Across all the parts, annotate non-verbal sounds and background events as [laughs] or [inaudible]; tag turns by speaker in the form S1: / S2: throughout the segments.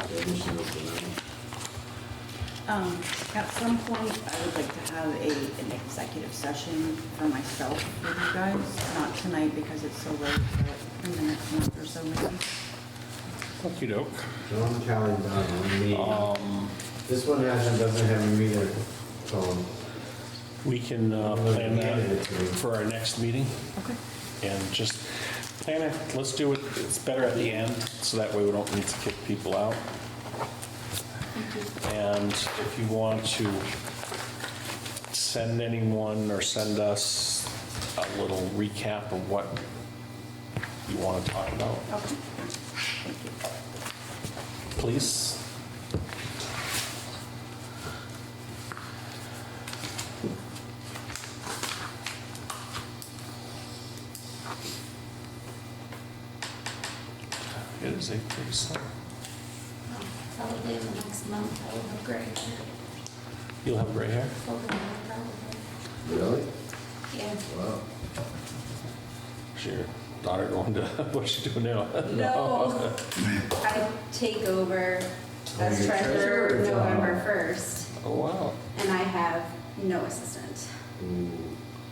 S1: additional to that.
S2: Um, At some point, I would like to have a, an executive session for myself with you guys, not tonight because it's so late, but in the next month or so maybe.
S3: Okey doke. Um,
S1: They're on the calendar, on the meeting. This one hasn't, doesn't have Um, a meter, so
S3: We can uh, plan that for our next meeting
S2: Okay.
S3: and just plan it. Let's do it, it's better at the end, so that way we don't need to kick people out. And if you want to send anyone or send us a little recap of what you want to talk about,
S2: Okay.
S3: please. It is 8:37.
S4: Probably in the next month, I will have gray hair.
S3: You'll have gray hair?
S4: Over there, probably.
S1: Really?
S4: Yeah.
S1: Wow.
S3: Is your daughter going to, [laughs] what's she doing now? [laughs] Oh,
S4: No, I take over
S1: Oh,
S4: as
S1: you're
S4: treasurer
S1: treasurer.
S4: November 1st,
S3: Oh, wow.
S4: and I have no assistant [laughs]
S1: Mm.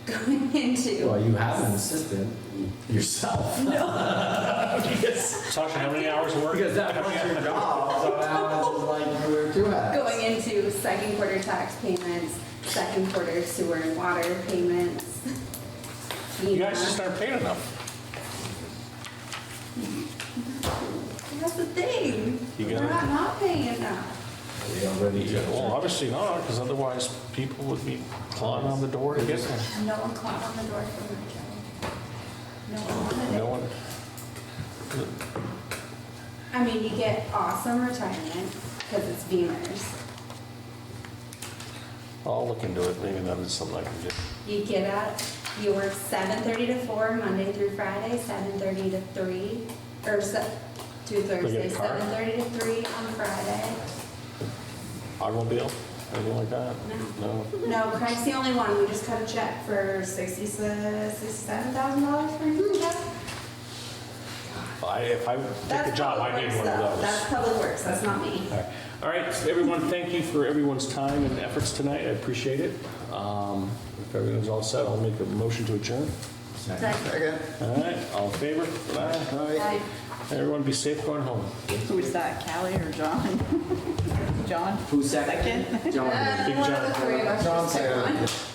S4: going
S1: Well,
S4: into.
S1: you have an assistant yourself. [laughs] Because
S3: Tasha, how many hours of work?
S1: because that was your job, [laughs] so now it's just like you were two hats.
S4: Going into second quarter tax payments, second quarter sewer and water payments. [laughs]
S3: You guys
S4: FEMA.
S3: just aren't paid enough.
S4: That's the thing.
S3: You
S4: We're
S3: gotta-
S4: not not paying enough.
S1: They already took
S3: Well, obviously not, because otherwise people would be clawing on the door to get them.
S4: No one clapped on the door for my job. No one wanted it.
S3: No one,
S4: I mean, you get awesome retirement because it's Beamers.
S3: I'll look into it, maybe that is something I can do.
S4: You get up, you work seven thirty to four, Monday through Friday, seven thirty to three, or se- to Thursday,
S3: a car?
S4: seven thirty to three on Friday.
S3: Automobile, anything like that? No.
S4: No, Craig's the only one, we just cut a check for sixty, sixty-seven thousand dollars for his check.
S3: I, if I
S4: That's
S3: take a job, I
S4: public
S3: need one
S4: works
S3: of
S4: stuff. That's
S3: those.
S4: public works, that's not me.
S3: All right. All right, so everyone, thank you for everyone's time and efforts tonight, I appreciate it. Um, If everyone's all set, I'll make a motion to adjourn.
S1: Second.
S3: All right, all in favor? Aye.
S4: Like,
S3: Everyone be safe going home.
S2: Who is that, Callie or John? [laughs] John?
S1: Who seconded? John.
S4: uh,
S3: Big
S4: One of
S3: John. [laughs]
S4: the three of us.
S1: John
S4: just pick
S1: seconded.
S4: one.